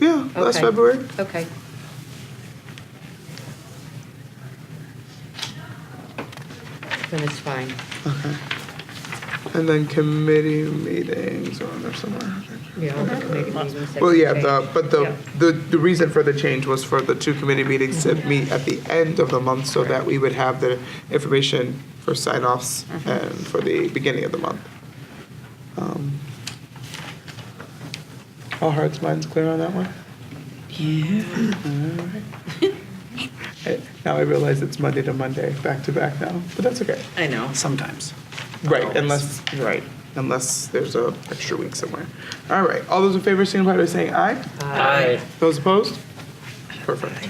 last Okay. February. Okay. Then it's fine. Okay. And then committee meetings are on there somewhere. Yeah, all the committee meetings that Well, can yeah, change. the, but the, Yeah. the, the reason for the change was for the two committee meetings to meet at the end of the month so that we would have the information for sign-offs Mm-hmm. and for the beginning of the month. Um, All hearts, minds clear on that one? Yeah. Now I realize it's Monday to Monday, back to back now, but that's okay. I know. Sometimes. Right, unless, right, unless there's a extra week somewhere. All right, all those in favor signify by saying aye. Uh, Aye. Those opposed? Perfect.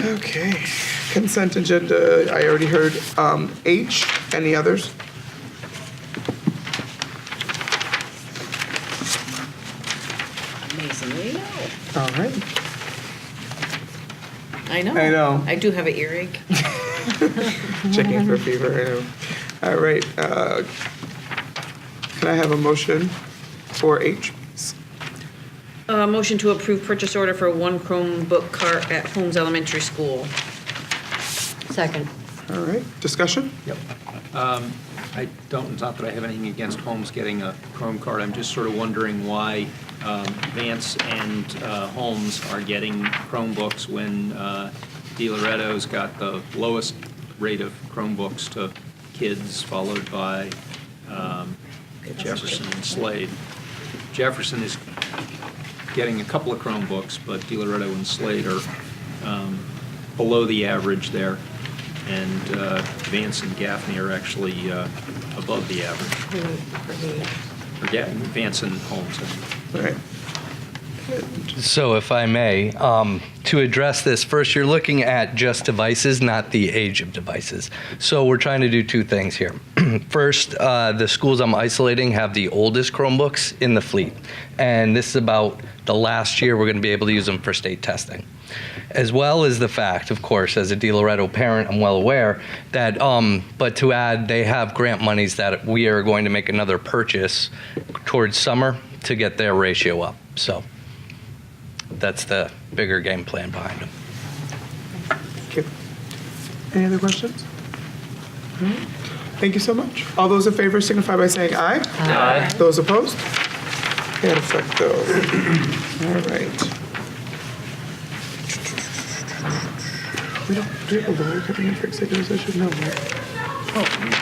Okay, consent agenda, I already heard um, H, any others? Amazingly, no. All right, I know. I know. I do have an earache. checking for fever, I know. All right, uh, can I have a motion for H? Uh, motion to approve purchase order for one Chromebook cart at Holmes Elementary School. Second. All right, discussion? Yep. I don't, it's not that I have anything against Holmes getting a Chrome card, I'm just sort of wondering why um, Vance and uh, Holmes are getting Chromebooks when uh, De Loretto's got the lowest rate of Chromebooks to kids, followed by um, Jefferson and Slade. Jefferson is getting a couple of Chromebooks, but De Loretto and Slade are um, below the average there. And uh, Vance and Gaffney are actually uh, above the average. Or Ga- Vance and Holmes. All right, So, if I may, um, to address this, first, you're looking at just devices, not the age of devices. So, we're trying to do two things here. first, uh, the schools I'm isolating have the oldest Chromebooks in the fleet, and this is about the last year we're going to be able to use them for state testing. As well as the fact, of course, as a De Loretto parent, I'm well aware that, um, but to add, they have grant monies that we are going to make another purchase towards summer to get their ratio up. So, that's the bigger game plan behind them. Okay. Any other questions? All right. Thank you so much. All those in favor signify by saying aye. Aye. Those opposed? Can't affect those. All right. We don't, do we have a lawyer coming in for executive session? No, right? No, we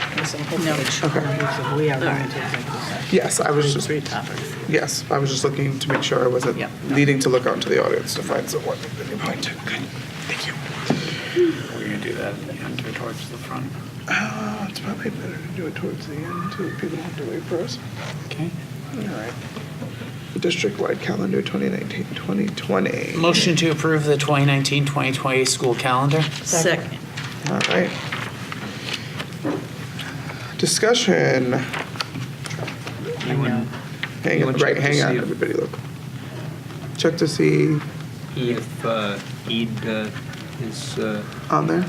are going to take Yes, I was just, three topics. yes, I was just looking to make sure I wasn't Yeah. needing to look out into the audience to find someone at any point. Good, thank you. We're going to do that after towards the front. Uh, it's probably better to do it towards the end, so that people don't have to wait for us. Okay. All right. District-wide calendar 2019, 2020. All Motion to approve the 2019-2020 school calendar. Second. right. Discussion. You and Hang on, You wanna check right, to hang on, see if- everybody look. Check to see if uh, Eid uh, is, uh, on there.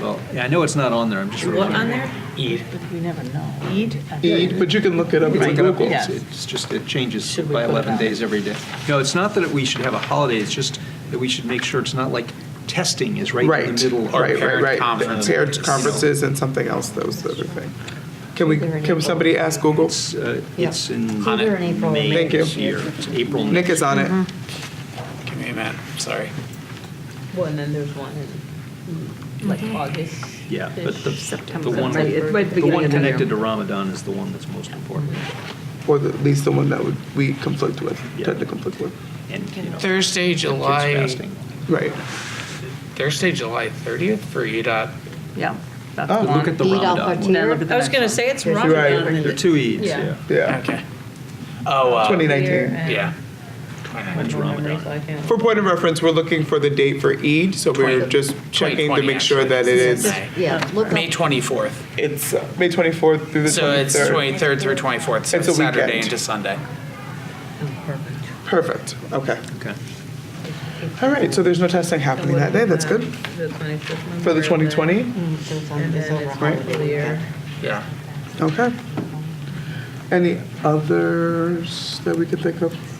well, yeah, I know it's not on there, I'm just. sort of What on wondering. there? Eid. We never know. Eid? Eid, but you can look it up It's on like an Google. update. Yes. It's just, it changes Should we by put it 11 on? days every day. No, it's not that we should have a holiday, it's just that we should make sure it's not like testing is right Right, in the middle. of right, parent right, right. conference. Parent You know, conferences and something else, that was the other thing. Can we, can somebody ask Google? It's, uh, it's in Yeah. Either in April or May Thank you. this year. It's April. Nick is on it. Give me a minute, sorry. Well, and then there's one in like August. Yeah, but the, the September. one, Right, right the beginning one of the connected to Ramadan is the one that's most important. Or the- at least the one that would, we conflict with, tend to Yeah. conflict with. And, you know, kids Thursday, July, fasting. Right. Thursday, July 30th for E EDOT. Yeah. that's Oh, the look one. at the Eid al-Ramadan one. Then look at the I was next gonna one. say it's There's wrong. Right. another one. There are two Eids, Yeah. yeah. Yeah. Okay. Oh, uh, 2019. yeah. When's Ramadan? For point of reference, we're looking for the date for Eid, so we're Twenty- just checking to 2020, make sure that it actually. is, May. Yeah, look May 24th. it's uh, May 24th through the So it's 23rd. 23rd through 24th, so It's a it's Saturday weekend. into Sunday. Perfect, okay. Okay. All right, so there's no testing happening that day, that's good. For the 2020, So it's on- it's over right? Yeah. Okay. Any others that we could think of?